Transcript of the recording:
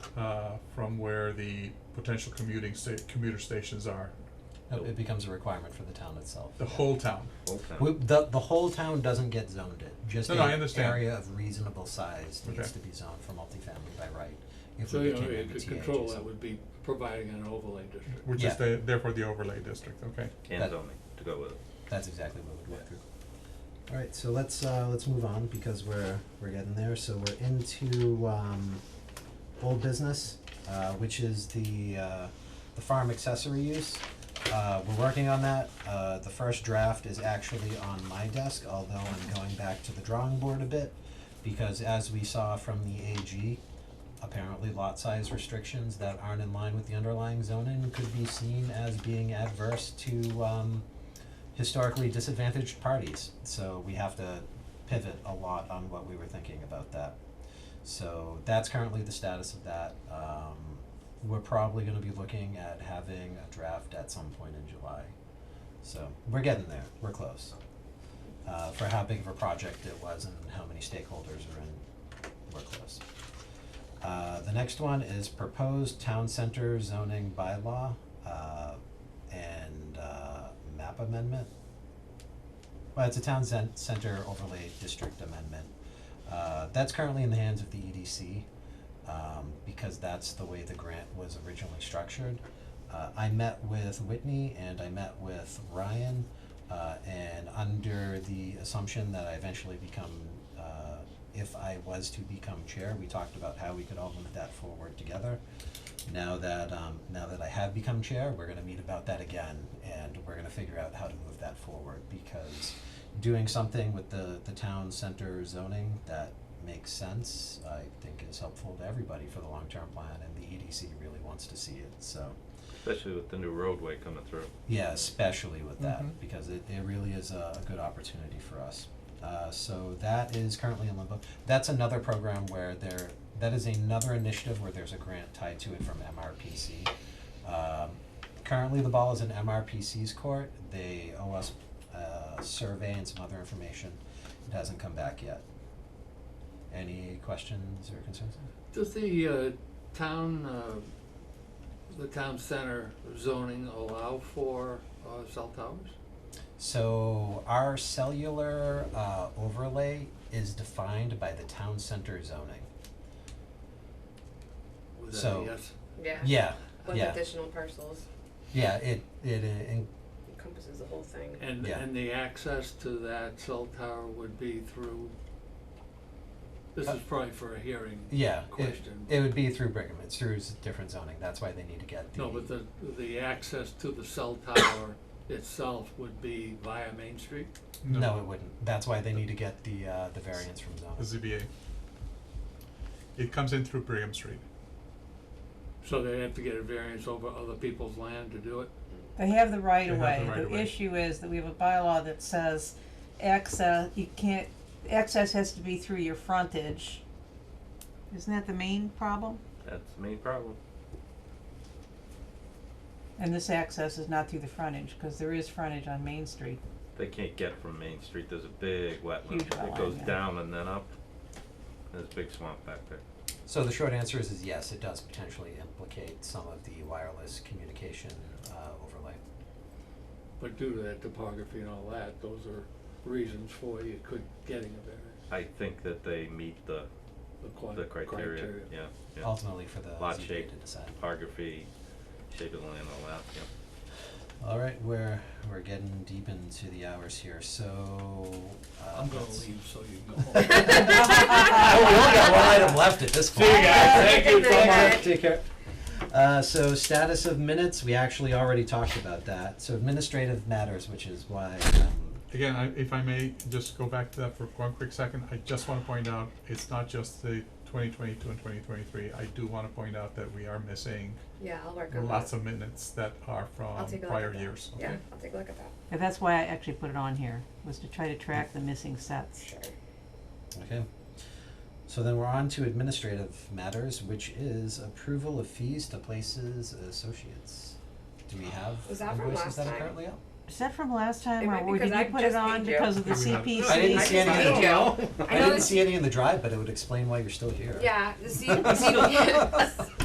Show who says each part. Speaker 1: uh, from where the potential commuting sta- commuter stations are,
Speaker 2: No, it becomes a requirement for the town itself.
Speaker 1: the
Speaker 2: yeah.
Speaker 1: whole town.
Speaker 3: Old town.
Speaker 2: We, the, the whole town doesn't get zoned it, just
Speaker 1: No, no, I
Speaker 2: an
Speaker 1: understand.
Speaker 2: area of reasonable size
Speaker 1: Okay.
Speaker 2: needs to be zoned for multifamily by right. If
Speaker 4: So,
Speaker 2: we
Speaker 4: you know,
Speaker 2: became
Speaker 4: it- to
Speaker 2: MBTA
Speaker 4: control that
Speaker 2: adjacent.
Speaker 4: would be providing an overlay district.
Speaker 1: Which
Speaker 2: Yeah.
Speaker 1: is the, therefore the overlay district, okay?
Speaker 3: And
Speaker 2: That-
Speaker 3: zoning, to go with it.
Speaker 2: That's exactly what we'd work through. Alright, so let's, uh, let's move on because we're, we're getting there, so we're into, um, old business, uh, which is the, uh, the farm accessory use. Uh, we're working on that, uh, the first draft is actually on my desk, although I'm going back to the drawing board a bit. Because as we saw from the AG, apparently lot size restrictions that aren't in line with the underlying zoning could be seen as being adverse to, um, historically disadvantaged parties. So we have to pivot a lot on what we were thinking about that. So that's currently the status of that. Um, we're probably going to be looking at having a draft at some point in July. So we're getting there. We're close. Uh, for how big of a project it was and how many stakeholders are in, we're close. Uh, the next one is proposed town center zoning bylaw, uh, and, uh, map amendment. Well, it's a town cen- center overlay district amendment. Uh, that's currently in the hands of the EDC, um, because that's the way the grant was originally structured. Uh, I met with Whitney and I met with Ryan, uh, and under the assumption that I eventually become, uh, if I was to become chair, we talked about how we could all move that forward together. Now that, um, now that I have become chair, we're gonna meet about that again, and we're gonna figure out how to move that forward, because doing something with the, the town center zoning that makes sense, I think is helpful to everybody for the long-term plan, and the EDC really wants to see it, so.
Speaker 3: Especially with the new roadway coming through.
Speaker 2: Yeah, especially with
Speaker 1: Mhm.
Speaker 2: that, because it, it really is a, a good opportunity for us. Uh, so that is currently in limbo. That's another program where there, that is another initiative where there's a grant tied to it from MRPC. Um, currently, the ball is in MRPC's court. They owe us a survey and some other information. It hasn't come back yet. Any questions or concerns?
Speaker 4: Does the uh, town, uh, the town center zoning allow for uh, cell towers?
Speaker 2: So our cellular uh, overlay is defined by the town center zoning.
Speaker 4: Was that a
Speaker 2: So-
Speaker 4: yes?
Speaker 5: Yeah.
Speaker 2: Yeah,
Speaker 5: With
Speaker 2: yeah.
Speaker 5: additional parcels
Speaker 2: yeah. It it, uh, in-
Speaker 5: encompasses the whole thing.
Speaker 4: And,
Speaker 2: Yeah.
Speaker 4: and the access to that cell tower would be through, this
Speaker 2: Uh,
Speaker 4: is probably for a hearing
Speaker 2: yeah. It,
Speaker 4: question.
Speaker 2: it would be through Brigham. It's through s- different zoning. That's why they need to get the.
Speaker 4: No, but the, the access to the cell tower itself would be via Main Street?
Speaker 2: no, it wouldn't. That's why they need to get the uh, the variance from
Speaker 1: The
Speaker 2: zoning.
Speaker 1: ZBA. It comes in through Brigham Street.
Speaker 4: So they have to get a variance over other people's land to do it?
Speaker 6: They have the right of
Speaker 1: They have
Speaker 6: way.
Speaker 1: the right of
Speaker 6: The
Speaker 1: way.
Speaker 6: issue is that we have a bylaw that says access, you can't, access has to be through your frontage. Isn't that the main problem?
Speaker 3: That's the main problem.
Speaker 6: And this access is not through the frontage, cause there is frontage on Main Street.
Speaker 3: They can't get from Main Street, there's a big wetland,
Speaker 6: Huge
Speaker 3: it
Speaker 6: wetland,
Speaker 3: goes
Speaker 6: yeah.
Speaker 3: down and then up. There's a big swamp back there.
Speaker 2: So the short answer is, is yes. It does potentially implicate some of the wireless communication uh, overlay.
Speaker 4: But due to that topography and all that, those are reasons for you could getting a variance,
Speaker 3: I think that they meet the,
Speaker 4: the qua-
Speaker 3: the criteria, yeah,
Speaker 6: Oh.
Speaker 3: yeah.
Speaker 2: Ultimately, for the
Speaker 3: Lot
Speaker 2: ZBA
Speaker 3: shape.
Speaker 2: to decide.
Speaker 3: Topography, shape of the land, all that, yeah.
Speaker 2: All right, we're we're getting deep into the hours here, so. Uh,
Speaker 4: I'm gonna
Speaker 2: let's-
Speaker 4: leave so you can go home.
Speaker 2: Oh, we only got one item left at this point.
Speaker 5: you guys. Thank you so Thank you. much.
Speaker 2: Take care. Uh, so status of minutes, we actually already talked about that. So administrative matters, which is why, um,
Speaker 1: Again, I, if I may just go back to that for one quick second, I just wanna point out, it's not just the twenty twenty-two and twenty twenty-three. I do wanna point out that we are missing
Speaker 5: Yeah, I'll work on that.
Speaker 1: lots of minutes that are from
Speaker 5: I'll take a look
Speaker 1: prior
Speaker 5: at that.
Speaker 1: years, okay?
Speaker 5: Yeah, I'll take a look at that,
Speaker 6: And that's why I actually put it on here, was to try to track the missing sets.
Speaker 5: sure.
Speaker 2: okay. So then we're on to administrative matters, which is approval of fees to places associates. Do we have
Speaker 5: Was that from
Speaker 2: invoices
Speaker 5: last
Speaker 2: that are
Speaker 5: time?
Speaker 2: currently up?
Speaker 6: Is that from last time,
Speaker 5: It
Speaker 6: or
Speaker 5: might be
Speaker 6: were- did
Speaker 5: 'cause
Speaker 6: you
Speaker 5: I
Speaker 6: put it
Speaker 5: just
Speaker 6: on
Speaker 5: made you.
Speaker 6: because of the
Speaker 1: Yeah, we have-
Speaker 6: CPC?
Speaker 2: I didn't see any
Speaker 5: I
Speaker 2: of
Speaker 5: don't
Speaker 2: the,
Speaker 5: know. I
Speaker 2: I
Speaker 5: know
Speaker 2: didn't
Speaker 5: this-
Speaker 2: see any in the drive, but it would explain why you're still here.
Speaker 5: Yeah, the C, the C,